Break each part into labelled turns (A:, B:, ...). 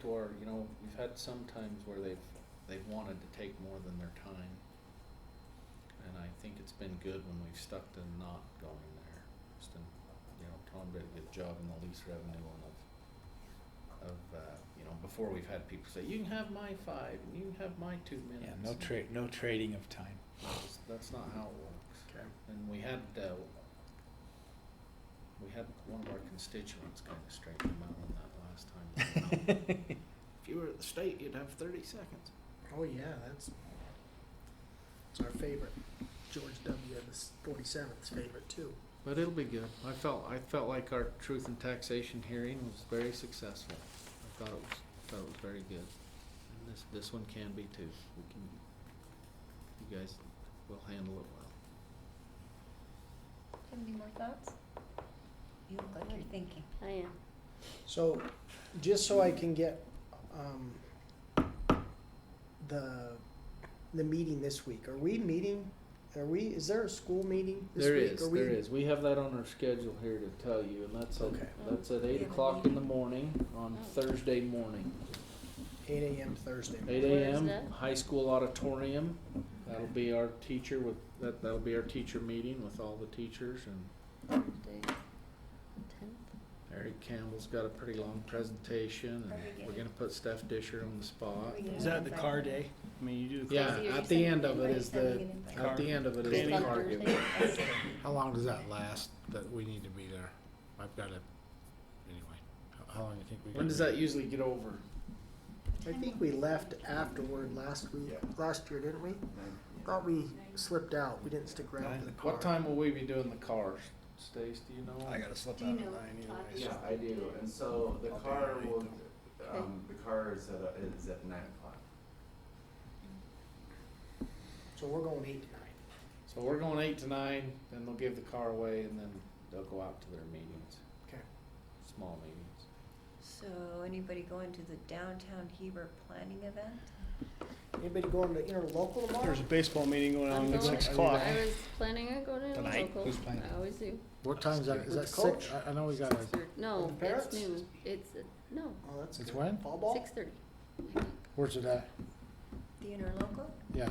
A: to our, you know, we've had some times where they've, they've wanted to take more than their time. And I think it's been good when we've stuck to not going there, just in, you know, Tom did a good job in the lease revenue and of, of, uh, you know, before we've had people say, you can have my five, and you can have my two minutes.
B: Yeah, no
A: and
B: trade, no trading of time.
A: That's, that's not how it works.
C: Okay.
A: And we had, uh, we had one of our constituents kind of straighten them out on that last time. If you were at the state, you'd have thirty seconds.
C: Oh yeah, that's it's our favorite. George W. the forty seventh favorite too.
A: But it'll be good. I felt, I felt like our truth and taxation hearing was very successful. I thought it was, thought it was very good. And this, this one can be too. We can, you guys will handle it well.
D: Do you have any more thoughts? You look like you're thinking.
E: I am.
C: So, just so I can get um, the the meeting this week. Are we meeting? Are we? Is there a school meeting this
A: There
C: week?
A: is,
C: Are we,
A: there is. We have that on our schedule here to tell you, and that's at,
C: Okay.
A: that's at eight
D: Yeah,
A: o'clock
D: but
A: in the morning on
E: Oh.
A: Thursday morning.
C: Eight a.m. Thursday.
A: Eight
E: Where is
A: AM,
E: that?
A: high school auditorium. That'll be our teacher with, that, that'll be our teacher meeting with all the teachers and
E: Thursday, tenth.
A: Eric Campbell's got a pretty long presentation
D: Are we
A: and we're gonna put Steph Disher on the spot.
D: Yeah.
F: Is that the car day? I mean, you do the car.
A: Yeah,
E: Casey, are you
A: at the
E: sending
A: end of it
D: anybody
A: is the,
D: sending an invite?
A: at the end of it is
F: Just
A: the
F: on
A: card
E: Thursday?
A: giveaway.
G: How long does that last, that we need to be there? I've got to, anyway, how, how long do you think we got?
A: When does that usually get over?
C: I think we left afterward last week. Last year, didn't we? Thought we slipped out. We didn't stick around for the car.
A: What time will we be doing the cars? Stace, do you know?
F: I gotta slip
E: Do
F: out
E: you
F: at
E: know
F: nine
E: Todd?
F: anyways.
H: Yeah, I do, and so the
F: I'll be
H: car
F: ready.
H: will, um, the car is at, a- is at nine o'clock.
C: So we're going eight to nine.
A: So we're going eight to nine, then they'll give the car away and then they'll go out to their meetings,
C: Okay.
A: small meetings.
D: So anybody going to the downtown Heber planning event?
C: Anybody going to interlocal tomorrow?
F: There's a baseball meeting going
E: I'm
F: on at
E: going.
F: six
E: I
F: o'clock.
E: was planning on going to
B: Tonight?
E: local.
B: Who's playing?
E: I always do.
G: What time is that, is
C: With
G: that
C: the
G: six?
C: coach?
G: I, I know we got a,
E: No,
C: With the
E: it's
C: parents?
E: noon. It's, uh, no,
C: Oh, that's
G: It's
C: good.
G: when?
C: Fall ball.
E: six thirty.
G: where's it at?
D: The interlocal?
G: Yeah,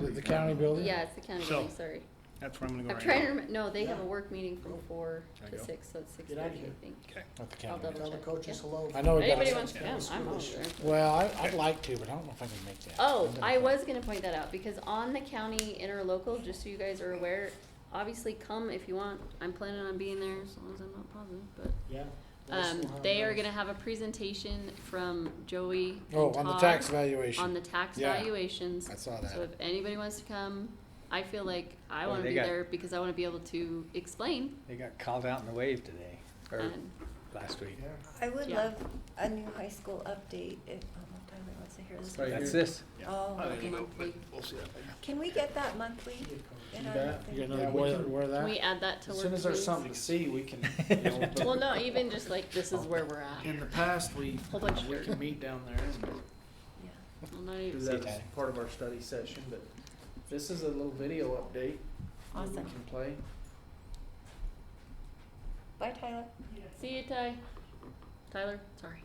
G: is it the county
A: Oh,
G: building?
E: Yeah, it's the county
F: So,
E: building, sorry.
F: That's where I'm gonna go
E: I'm
F: right
E: trying to
F: now.
E: remember, no, they have a
C: Yeah.
E: work meeting from
C: Cool.
E: four
F: Can I
E: to
F: go?
E: six, so it's six
C: Get out of
E: thirty,
C: here.
E: I think.
F: Okay.
G: At the
E: I'll
G: county building.
C: Tell the
E: check,
C: coaches
E: yeah.
C: hello.
G: I know we
E: If
G: got,
E: anybody
G: a-
E: wants to come, I'm always there.
G: well, I, I'd like to, but I don't know if I can make that.
E: Oh,
G: I'm
E: I
G: done.
E: was gonna point that out, because on the county interlocal, just so you guys are aware, obviously come if you want, I'm planning on being there, as long as I'm not positive, but.
C: Yeah. let us
E: Um,
C: know how it
E: they are
C: goes.
E: gonna have a presentation from Joey and
G: Oh, on the
E: Todd
G: tax
E: on
G: valuation,
E: the tax
G: Yeah.
E: valuations.
G: I saw
E: So
G: that.
E: if anybody wants to come, I feel like I
F: Oh,
E: wanna
F: they
E: be
F: got-
E: there because I wanna be able to explain
F: They got called out in the wave today, or
E: and
F: last week.
C: Yeah.
D: I would
E: Yeah.
D: love a new high school update if, oh, no, Tyler wants to hear this.
A: Right
F: That's
A: here.
F: this.
D: Oh, okay. Can we get that monthly? in our
A: bet.
D: thing?
G: You got
A: Yeah,
G: another
A: we
G: boiler,
A: can-
G: where
E: can
G: that?
E: we add that to work
A: As soon as there's
E: meetings?
A: something to see, we can, you know,
E: Well, no, even just like this is where we're at.
A: In the past, we,
E: Whole bunch of
A: we
E: dirt.
A: can meet down there and
D: Yeah.
E: Well, not
A: do
E: even-
A: that as
G: Tyler.
A: part of our study session, but this is a little video update that we
D: Awesome.
A: can play.
D: Bye, Tyler.
E: See you, Ty. Tyler, sorry.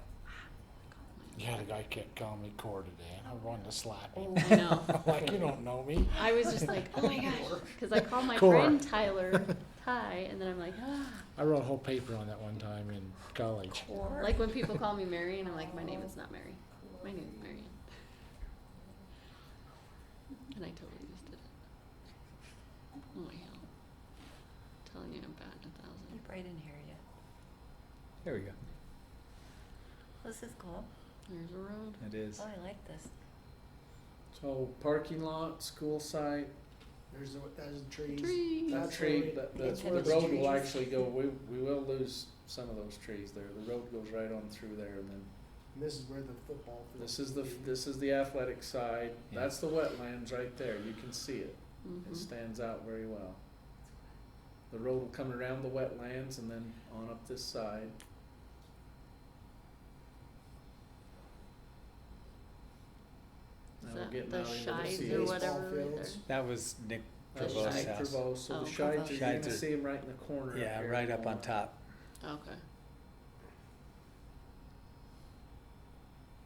G: Yeah, the guy kept calling me core today, and I wanted to slap him.
E: Oh, I know.
G: Like, you don't know me.
E: I was just like, oh my gosh, because I call my
G: Core.
E: friend Tyler Ty, and then I'm like, ah.
G: I wrote a whole paper on that one time in college.
D: Or
E: Like when people call me Mary, and I'm like, my name is not Mary. My name is Marion. And I totally just did it. Oh my hell. telling you I'm bad in a
D: You
E: thousand.
D: probably didn't hear it yet.
F: There we go.
D: This is cool.
E: There's a road.
F: It is.
D: Oh, I like this.
A: So parking lot, school site,
C: There's the, there's the trees.
E: Tree.
A: that
C: That's
A: tree,
C: where we-
A: that,
D: It's
A: the,
D: where
A: the
D: the
A: road
D: trees-
A: will actually go, we, we will lose some of those trees there. The road goes right on through there and then
C: And This is where the football. field
A: this is the,
C: will be.
A: this is the athletic side.
G: Yeah.
A: That's the wetlands right there. You can see it. It
E: Mm-hmm.
A: stands out very well. The road will come around the wetlands and then on up this side.
E: Is
A: Now we're
E: that
A: getting
E: the
A: out into the
E: shides
A: sea.
E: or
C: Baseball
E: whatever right there?
C: fields.
F: That was Nick
A: That's
E: Prevost
F: Provost's
A: Shai
F: house.
A: Prevost, so
E: Oh,
A: the shides,
E: Prevost.
A: are- you're
F: Shides
A: gonna
F: are-
A: see them right in the corner. up
F: Yeah,
A: here.
F: right up on top.
E: Okay.